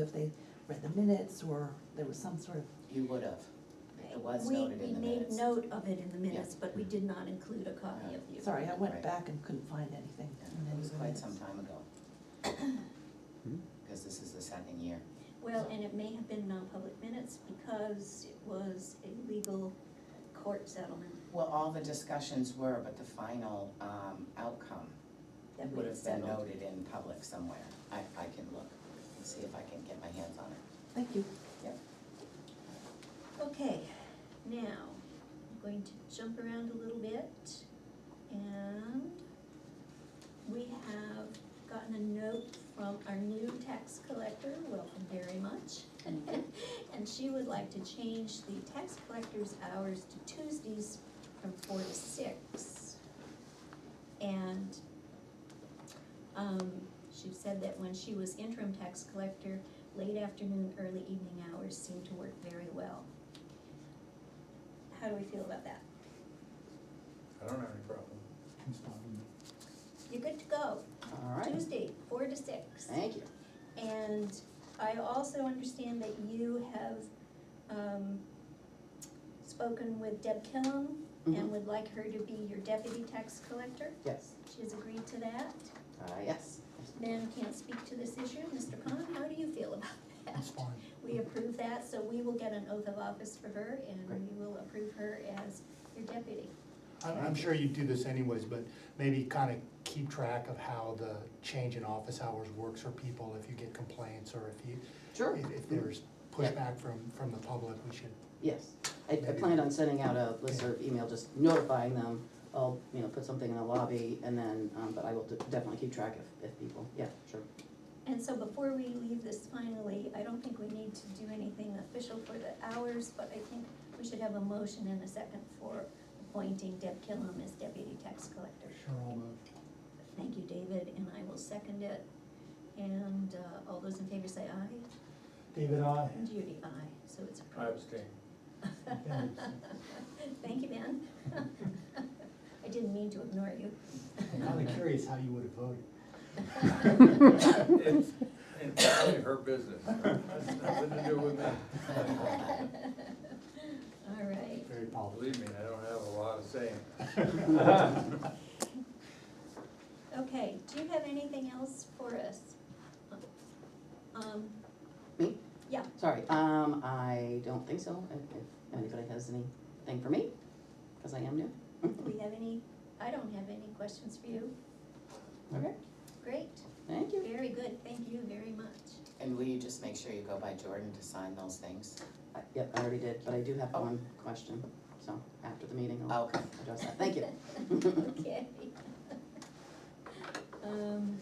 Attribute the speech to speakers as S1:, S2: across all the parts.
S1: if they read the minutes or there was some sort of,
S2: You would have. It was
S3: We-
S2: noted in the minutes.
S3: We made note of it in the minutes, but we did not include a copy
S2: Yeah.
S3: of the.
S1: sorry, I went
S2: Right.
S1: back and couldn't find anything
S2: Yeah,
S1: in
S2: It
S1: any
S2: was
S1: of the
S2: quite some
S1: minutes.
S2: time ago,
S4: Hmm?
S2: because this is the second year.
S3: Well, and it may have been non-public minutes because it was a legal court settlement
S2: Well, all the discussions were, but the final um, outcome
S3: that we
S2: would have been
S3: settled.
S2: noted in public somewhere. I, I can look and see if I can get my hands on it.
S1: Thank you.
S3: Okay, now, I'm going to jump around a little bit and we have gotten a note from our new tax collector, welcome very much. And she would like to change the tax collector's hours to Tuesdays from four to six. And, um, she said that when she was interim tax collector, late afternoon, early evening hours seem to work very well. How do we feel about that?
S5: I don't have any problem.
S3: You're good to go,
S2: All right,
S3: Tuesday, four to six.
S2: thank you.
S3: And I also understand that you have, um, spoken with Deb Killam and
S2: Mhm.
S3: would like her to be your deputy tax collector.
S2: Yes,
S3: She has agreed to that.
S2: uh, yes.
S3: Then can't speak to this issue. Mr. Khan, how do you feel about that?
S6: That's fine.
S3: We approve that, so we will get an oath of office for her and
S2: Great.
S3: we will approve her as your deputy.
S6: I'm, I'm sure you do this anyways, but maybe kind of keep track of how the change in office hours works for people if you get complaints or if you,
S7: Sure,
S6: if, if there's pushback from, from the public, we should.
S7: yes. I, I planned on sending out a listserv email, just notifying them. I'll, you know, put something in the lobby and then, um, but I will de- definitely keep track if, if people, yeah, sure.
S3: And so before we leave this finally, I don't think we need to do anything official for the hours, but I think we should have a motion and a second for appointing Deb Killam as deputy tax collector.
S6: Sure, I'll move.
S3: Thank you, David, and I will second it. And uh, all those in favor say aye.
S6: David, I.
S3: And Judy, aye, so it's approved.
S5: I abstain.
S3: Thank you, Ben. I didn't mean to ignore you.
S6: I'm kind of curious how you would have voted.
S5: It's entirely her business. That's nothing to do with me.
S3: All right,
S6: Very political.
S5: Believe me, I don't have a lot of saying.
S3: okay, do you have anything else for us? Um,
S7: Me?
S3: Yeah.
S7: Sorry, um, I don't think so, if, if anybody has anything for me, because I am new.
S3: do we have any, I don't have any questions for you.
S7: Okay,
S3: Great,
S7: thank you.
S3: very good, thank you very much.
S2: And will you just make sure you go by Jordan to sign those things?
S7: I- Yep, I already did, but I do have one question, so after the meeting, I'll
S2: Okay.
S7: address that. Thank you.
S3: Okay. Um,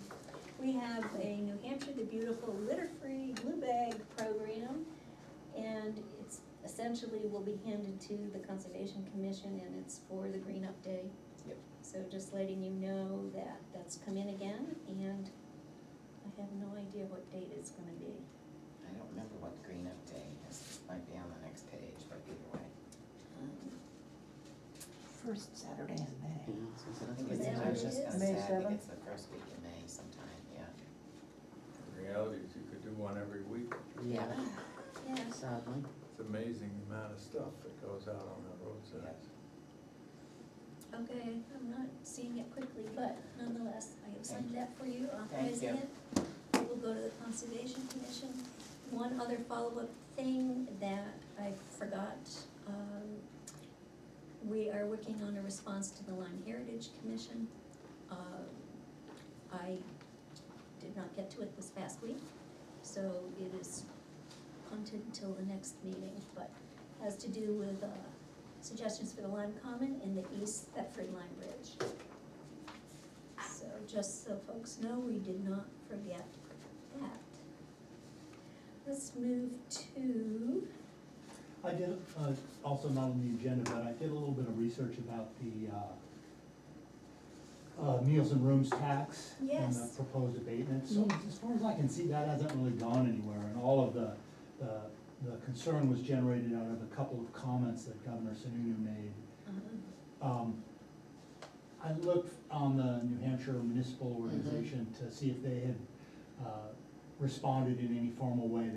S3: We have a New Hampshire the Beautiful litter-free blue bag program. And it's essentially will be handed to the Conservation Commission and it's for the Green Up Day.
S2: Yep.
S3: So just letting you know that that's come in again and I have no idea what date it's gonna be.
S2: I don't remember what Green Up Day is. Might be on the next page, but either way.
S3: Um,
S1: First Saturday in
S7: Yeah,
S2: Mm-hmm.
S1: May.
S7: I was
S2: I think it's, I was
S7: gonna say, that's what it is.
S2: just gonna
S8: May
S2: say, I think
S8: 7th?
S2: it's the first week in May sometime, yeah.
S5: The reality is you could do one every week.
S7: Yeah,
S3: Ah,
S7: uh,
S3: Yeah,
S7: sadly.
S5: It's amazing the amount of stuff that goes out on the roadsides.
S3: Okay, I'm not seeing it quickly, but nonetheless, I have signed that for you,
S2: Thank
S3: authorizing
S2: you.
S3: it. We will go to the Conservation Commission. One other follow-up thing that I forgot, um, we are working on a response to the Lyme Heritage Commission. Um, I did not get to it this past week, so it is punted until the next meeting, but has to do with, uh, suggestions for the Lime Common and the East Thetford Lime Bridge. So just so folks know, we did not forget that. Let's move to,
S9: I did, uh, also not on the agenda, but I did a little bit of research about the, uh, uh, meals and rooms tax and the
S3: Yes.
S9: proposed abatement. So as far as I can see, that hasn't really gone anywhere, and all of the, the, the concern was generated out of a couple of comments that Governor Sununu made.
S3: um,
S9: Um, I looked on the New Hampshire Municipal Organization to see if they had, uh, responded in any formal way.